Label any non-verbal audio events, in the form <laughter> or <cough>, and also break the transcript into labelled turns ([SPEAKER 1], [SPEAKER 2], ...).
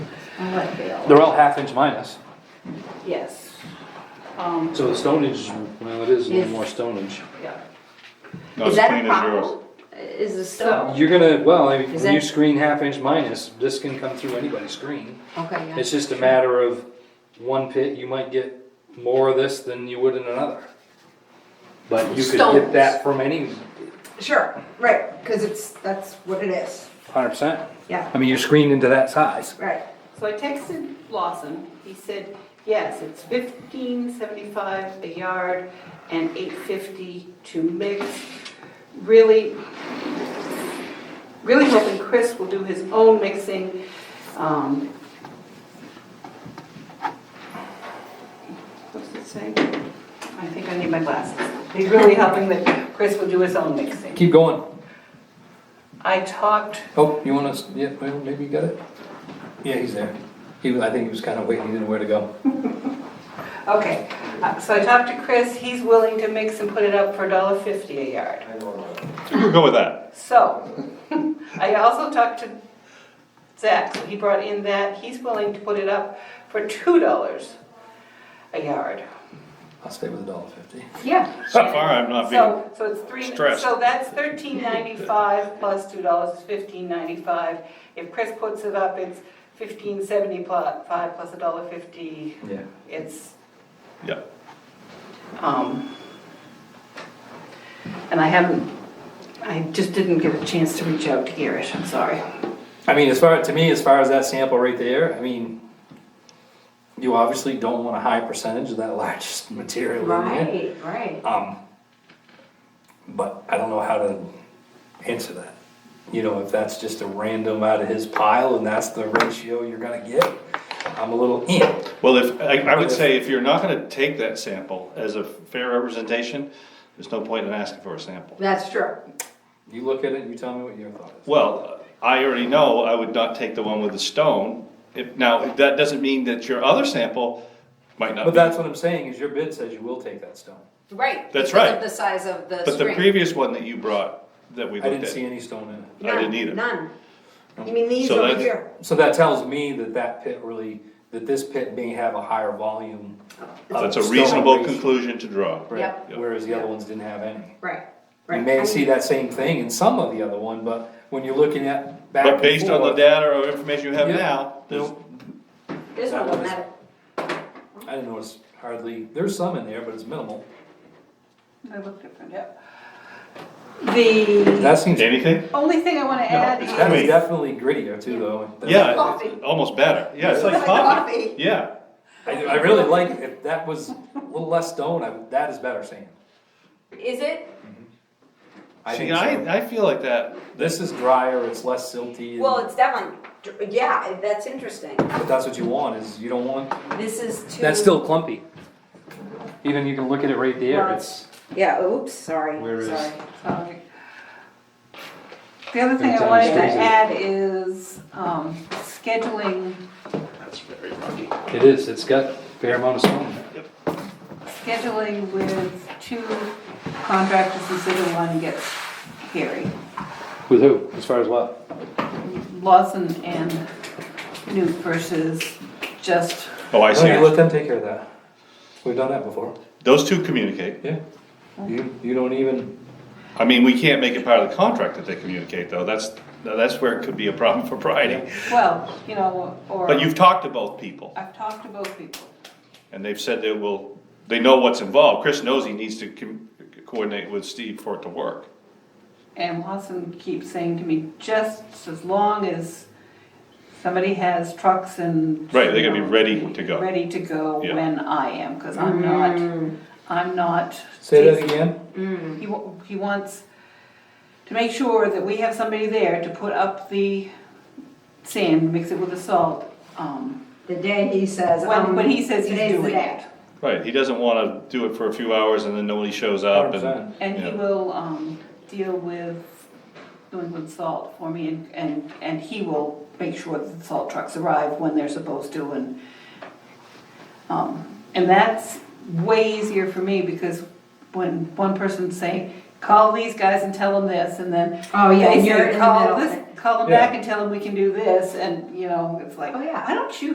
[SPEAKER 1] I like Bill,
[SPEAKER 2] They're all half inch minus,
[SPEAKER 1] yes. Um,
[SPEAKER 2] so the Stonehenge, well, it is a
[SPEAKER 1] Yes.
[SPEAKER 2] little more Stonehenge.
[SPEAKER 1] yeah.
[SPEAKER 3] Not
[SPEAKER 4] Is
[SPEAKER 3] as
[SPEAKER 4] that
[SPEAKER 3] clean
[SPEAKER 4] a
[SPEAKER 3] as yours.
[SPEAKER 4] problem? Is the stone?
[SPEAKER 2] You're gonna, well, I mean,
[SPEAKER 4] Is
[SPEAKER 2] when you
[SPEAKER 4] that-
[SPEAKER 2] screen half inch minus, this can come through anybody's screen.
[SPEAKER 4] Okay, yeah.
[SPEAKER 2] It's just a matter of one pit, you might get more of this than you would in another. But you could get
[SPEAKER 4] Stones.
[SPEAKER 2] that from any,
[SPEAKER 1] Sure, right, cause it's, that's what it is,
[SPEAKER 2] hundred percent.
[SPEAKER 1] yeah,
[SPEAKER 2] I mean, you're screened into that size.
[SPEAKER 1] right.
[SPEAKER 5] So I texted Lawson, he said, yes, it's fifteen seventy-five a yard and eight fifty to mix. Really, really hoping Chris will do his own mixing. Um, What's it say? I think I need my glasses. He's really hoping that Chris will do his own mixing.
[SPEAKER 2] Keep going.
[SPEAKER 5] I talked
[SPEAKER 2] Oh, you wanna, yeah, well, maybe you got it? Yeah, he's there. He, was- I think he was kinda waiting, he didn't know where to go.
[SPEAKER 5] Okay, uh, so I talked to Chris, he's willing to mix and put it up for $1.50 a yard.
[SPEAKER 3] We can go
[SPEAKER 5] <laughs>
[SPEAKER 3] with that.
[SPEAKER 5] So, I also talked to Zach, so he brought in that, he's willing to put it up for two dollars a yard.
[SPEAKER 2] I'll stay with a dollar fifty.
[SPEAKER 5] Yeah.
[SPEAKER 3] So far, I'm not being,
[SPEAKER 5] So, so it's three,
[SPEAKER 3] stressed.
[SPEAKER 5] so that's thirteen ninety-five plus two dollars is fifteen ninety-five. If Chris puts it up, it's fifteen seventy-five plus a dollar fifty,
[SPEAKER 2] Yeah.
[SPEAKER 5] it's
[SPEAKER 3] yeah.
[SPEAKER 5] Um, And I haven't, I just didn't get a chance to reach out to Garrett, I'm sorry.
[SPEAKER 2] I mean, as far, to me, as far as that sample right there, I mean, you obviously don't want a high percentage of that <laughs> large material in there.
[SPEAKER 4] Right, right.
[SPEAKER 3] Uh,
[SPEAKER 2] Um, but I don't know how to answer that. You know, if that's just a random out of his pile and that's the ratio you're gonna get, I'm a little in.
[SPEAKER 3] Well, if, I, I would say if you're not gonna take that sample as a fair representation, there's no point in asking for a sample.
[SPEAKER 4] That's true.
[SPEAKER 2] You look at it, you tell me what your thought is.
[SPEAKER 3] Well, I already know I would not take the one with the stone. If, now, that doesn't mean that your other sample might not
[SPEAKER 2] But
[SPEAKER 3] be.
[SPEAKER 2] that's what I'm saying, is your bid says you will take that stone.
[SPEAKER 4] Right.
[SPEAKER 3] That's
[SPEAKER 4] because
[SPEAKER 3] right.
[SPEAKER 4] of the size of the
[SPEAKER 3] But the
[SPEAKER 4] spring.
[SPEAKER 3] previous one that you brought, that we
[SPEAKER 2] I
[SPEAKER 3] looked
[SPEAKER 2] didn't see
[SPEAKER 3] at,
[SPEAKER 2] any stone in it.
[SPEAKER 3] I didn't
[SPEAKER 4] None,
[SPEAKER 3] either.
[SPEAKER 4] None.
[SPEAKER 1] You mean these
[SPEAKER 3] So
[SPEAKER 1] over
[SPEAKER 3] that's-
[SPEAKER 1] here?
[SPEAKER 2] So that tells me that that pit really, that this pit may have a higher volume.
[SPEAKER 3] Uh,
[SPEAKER 4] Oh,
[SPEAKER 3] That's a
[SPEAKER 2] of stone
[SPEAKER 3] reasonable
[SPEAKER 2] ratio.
[SPEAKER 3] conclusion to draw.
[SPEAKER 2] Right,
[SPEAKER 4] Yep.
[SPEAKER 2] whereas the other ones didn't have any.
[SPEAKER 4] Right, right. I
[SPEAKER 2] You may
[SPEAKER 4] mean,
[SPEAKER 2] see that same thing in some of the other one, but when you're looking at back
[SPEAKER 3] But based on the
[SPEAKER 2] and forth,
[SPEAKER 3] data or information you have
[SPEAKER 2] Yeah.
[SPEAKER 3] now, there's,
[SPEAKER 2] Nope.
[SPEAKER 4] This
[SPEAKER 2] that
[SPEAKER 4] one will
[SPEAKER 2] was-
[SPEAKER 4] matter.
[SPEAKER 2] I didn't notice hardly, there's some in there, but it's minimal.
[SPEAKER 5] I looked different, yep. The
[SPEAKER 2] That seems, that is
[SPEAKER 3] anything?
[SPEAKER 5] only thing I wanna add
[SPEAKER 3] it's
[SPEAKER 5] is,
[SPEAKER 3] heavy.
[SPEAKER 2] definitely grittier too, though. That's-
[SPEAKER 3] Yeah,
[SPEAKER 1] coffee.
[SPEAKER 3] it's almost better. Yeah, it's like
[SPEAKER 1] It's like
[SPEAKER 3] coffee.
[SPEAKER 1] coffee.
[SPEAKER 3] Yeah.
[SPEAKER 2] I, I really like, if that was a little less stone, I, that is better sand.
[SPEAKER 4] Is it?
[SPEAKER 2] I
[SPEAKER 3] See,
[SPEAKER 2] think so.
[SPEAKER 3] I, I feel like that,
[SPEAKER 2] This is drier, it's less silty,
[SPEAKER 4] Well,
[SPEAKER 2] and-
[SPEAKER 4] it's definitely, dr- yeah, that's interesting.
[SPEAKER 2] but that's what you want, is you don't want,
[SPEAKER 4] This is too.
[SPEAKER 2] that's still clumpy. Even you can look at it right there,
[SPEAKER 5] Right.
[SPEAKER 2] it's,
[SPEAKER 4] Yeah, oops, sorry,
[SPEAKER 2] Where is-
[SPEAKER 4] sorry.
[SPEAKER 5] sorry. The other thing I
[SPEAKER 2] Sometimes
[SPEAKER 5] wanted to
[SPEAKER 2] there's a-
[SPEAKER 5] add is, um, scheduling,
[SPEAKER 3] that's very rocky.
[SPEAKER 2] it is, it's got a fair amount of stone in it.
[SPEAKER 5] scheduling with two contractors instead of one gets hairy.
[SPEAKER 2] With who, as far as what?
[SPEAKER 5] Lawson and Newt versus just
[SPEAKER 3] Oh, I
[SPEAKER 2] No, you let
[SPEAKER 3] see.
[SPEAKER 2] them take care of that. We've done that before.
[SPEAKER 3] Those two communicate.
[SPEAKER 2] Yeah. You, you don't even,
[SPEAKER 3] I mean, we can't make it part of the contract that they communicate though. That's, that's where it could be a problem for Bridie.
[SPEAKER 5] Well, you know, or.
[SPEAKER 3] But you've talked to both people
[SPEAKER 5] I've talked to both people.
[SPEAKER 3] and they've said they will, they know what's involved. Chris knows he needs to com- coordinate with Steve for it to work.
[SPEAKER 5] And Lawson keeps saying to me, just as long as somebody has trucks and.
[SPEAKER 3] Right, they gotta be ready to go.
[SPEAKER 5] Ready to go
[SPEAKER 3] Yeah.
[SPEAKER 5] when I am, cause I'm not, I'm not.
[SPEAKER 2] say that again?
[SPEAKER 5] He, wa- he wants to make sure that we have somebody there to put up the sand, mix it with the salt, um,
[SPEAKER 4] The day he says,
[SPEAKER 5] when,
[SPEAKER 4] um,
[SPEAKER 5] when he says he's
[SPEAKER 4] today's the
[SPEAKER 5] doing
[SPEAKER 4] day.
[SPEAKER 5] it.
[SPEAKER 3] Right, he doesn't wanna do it for a few hours and then nobody shows up and.
[SPEAKER 2] 100%.
[SPEAKER 5] And he
[SPEAKER 3] Yeah.
[SPEAKER 5] will, um, deal with New England Salt for me and, and, and he will make sure that the salt trucks arrive when they're supposed to and, um, and that's way easier for me because when one person's saying, call these guys and tell them this and then.
[SPEAKER 4] Oh, yeah,
[SPEAKER 5] they say,
[SPEAKER 4] you're in the
[SPEAKER 5] "Call
[SPEAKER 4] middle of
[SPEAKER 5] this-
[SPEAKER 4] it."
[SPEAKER 5] Call them back
[SPEAKER 2] Yeah.
[SPEAKER 5] and tell them we can do this and, you know, it's like,
[SPEAKER 4] Oh, yeah.
[SPEAKER 5] why don't you